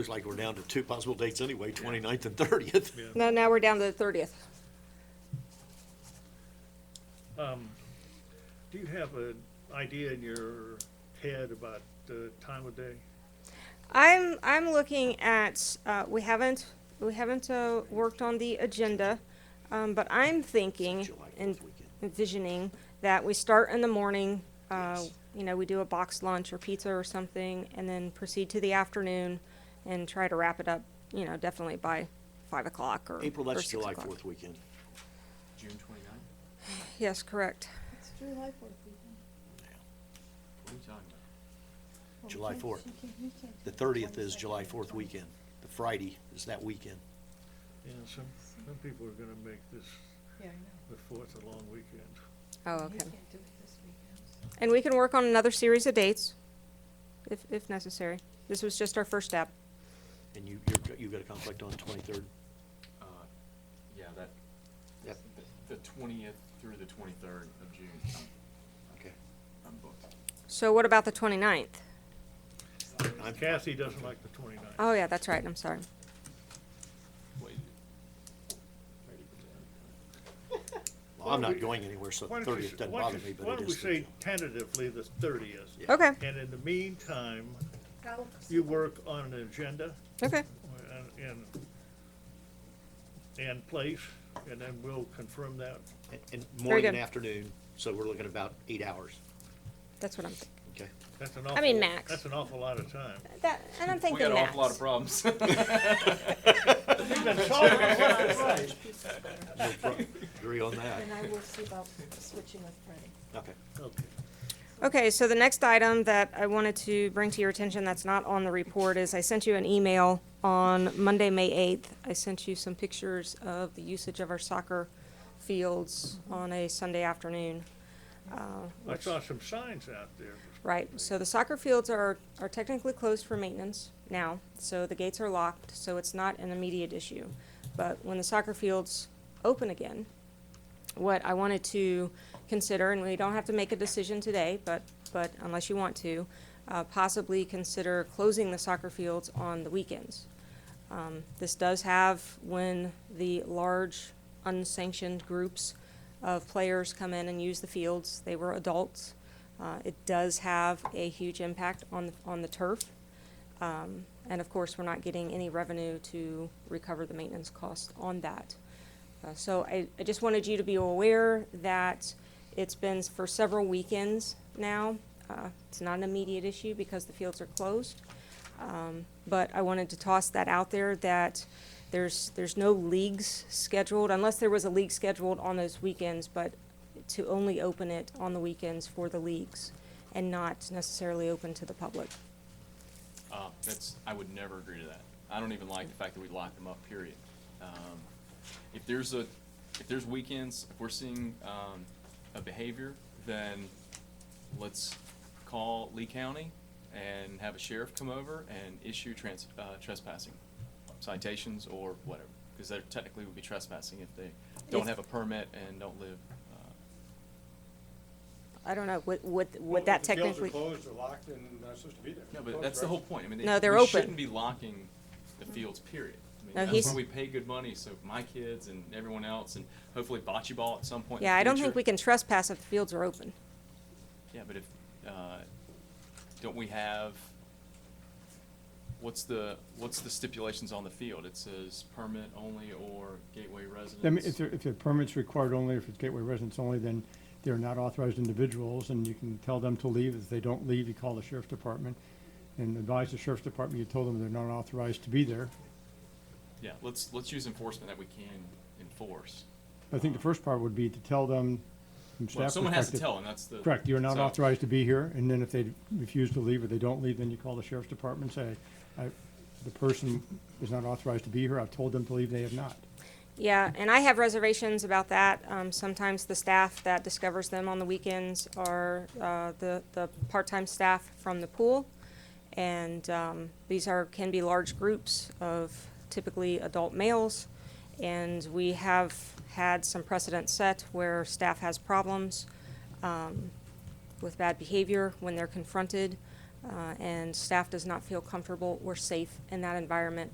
Looks like we're down to two possible dates anyway, 29th and thirtieth. No, now we're down to the thirtieth. Do you have an idea in your head about the time of day? I'm, I'm looking at, uh, we haven't, we haven't, uh, worked on the agenda, um, but I'm thinking July and fourth weekend. envisioning that we start in the morning, uh, Yes. you know, we do a box lunch or pizza or something, and then proceed to the afternoon and try to wrap it up, you know, definitely by five o'clock or, April, or that's six July o'clock. fourth weekend. June twenty-ninth? Yes, correct. It's July fourth weekend. What are you talking about? Well, we July can't- 4th. she can't- we can't The do thirtieth is 22nd, July fourth weekend. The Friday is that weekend. You know, some, some people are gonna make this, Yeah, I know. the fourth a long weekend. Oh, We okay. can't do it this weekend. And we can work on another series of dates, if, if necessary. This was just our first step. And you, you're, you've got a conflict on twenty-third? Uh, yeah, that, Yep. the- the twentieth through the twenty-third of June, Okay. I'm booked. So what about the 29th? I'm- Kathy doesn't like the 29th. Oh, yeah, that's right, I'm sorry. Wait. Well, I'm Why don't not we- going anywhere, so Why the don't you- thirtieth doesn't why don't bother you- me, Why but it don't we is. say the- tentatively the thirtieth? Yeah. Okay, And in the meantime, That'll- you work on an agenda okay, and- and, and place, and then we'll confirm that. And- And morning and good. afternoon, so we're looking at about eight hours, that's what I'm, thinking. okay? That's an I awful. mean, max. That's an awful lot of time. that, and I'm We thinking got an max. awful lot of problems. We've been talking about it. Piece of better. No pro- Agree on that, And I will see about switching with Freddie. okay. Okay. Okay, so the next item that I wanted to bring to your attention that's not on the report is I sent you an email on Monday, May 8th. I sent you some pictures of the usage of our soccer fields on a Sunday afternoon. Uh, I saw some signs out there. Right, so the soccer fields are, are technically closed for maintenance now, so the gates are locked, so it's not an immediate issue. But when the soccer fields open again, what I wanted to consider, and we don't have to make a decision today, but, but unless you want to, uh, possibly consider closing the soccer fields on the weekends. Um, This does have, when the large unsanctioned groups of players come in and use the fields, they were adults. Uh, It does have a huge impact on, on the turf. Um, And of course, we're not getting any revenue to recover the maintenance costs on that. Uh, So I, I just wanted you to be aware that it's been for several weekends now. Uh, It's not an immediate issue because the fields are closed. Um, But I wanted to toss that out there that there's, there's no leagues scheduled, unless there was a league scheduled on those weekends, but to only open it on the weekends for the leagues and not necessarily open to the public. Uh, that's, I would never agree to that. I don't even like the fact that we lock them up, period. Um, if there's a, if there's weekends, if we're seeing, um, a behavior, then let's call Lee County and have a sheriff come over and issue trans, uh, trespassing citations or whatever. Cause they're technically would be trespassing if they don't If- have a permit and don't live, uh, I don't know, would, would, Well, would that if the fields technically? are closed or locked and not supposed to be there. No, but Closed, that's the right? whole point. I mean, No, it- they're we open. shouldn't be locking the fields, period. I mean, No, that's he's- why we pay good money, so my kids and everyone else, and hopefully bocce ball at some point in Yeah, the I don't think future. we can trespass if the fields are open. Yeah, but if, uh, don't we have, what's the, what's the stipulations on the field? It says permit only or gateway residence. I mean, if, there- if the permit's required only, if it's gateway residents only, then they're not authorized individuals, and you can tell them to leave. If they don't leave, you call the sheriff's department and advise the sheriff's department, you told them they're not authorized to be there. Yeah, let's, let's use enforcement that we can enforce. I think the first part would be to tell them from staff Well, perspective. someone has to tell, and that's the. Correct, you're not so- authorized to be here, and then if they refuse to leave or they don't leave, then you call the sheriff's department, and say, I, the person is not authorized to be here, I've told them to leave, they have not. Yeah, and I have reservations about that. Um, sometimes the staff that discovers them on the weekends are, uh, the, the part-time staff from the pool. And, um, these are, can be large groups of typically adult males. And we have had some precedent set where staff has problems, um, with bad behavior when they're confronted. uh, and staff does not feel comfortable or safe in that environment